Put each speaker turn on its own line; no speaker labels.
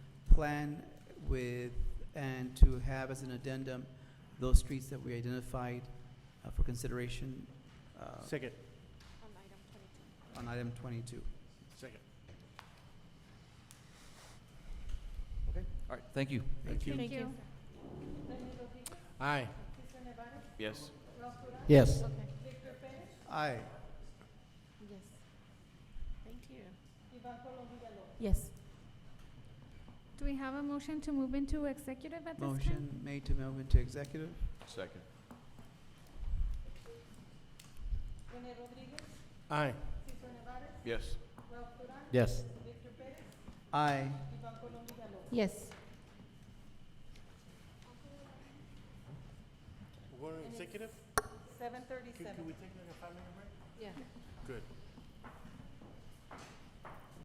plan with, and to have as an addendum, those streets that we identified uh, for consideration uh,
Second,
on item 22.
on item 22.
second.
All right, thank you.
Thank you.
Thank you.
Aye.
Yes.
Yes.
Aye.
Yes. Thank you. Yes.
Do we have a motion to move into executive at this time?
Motion made to move into executive.
Second.
Aye.
Yes.
Yes.
Aye.
Yes.
We're executive? Seven thirty-seven. Can we take like a five-minute break?
Yeah.
Good.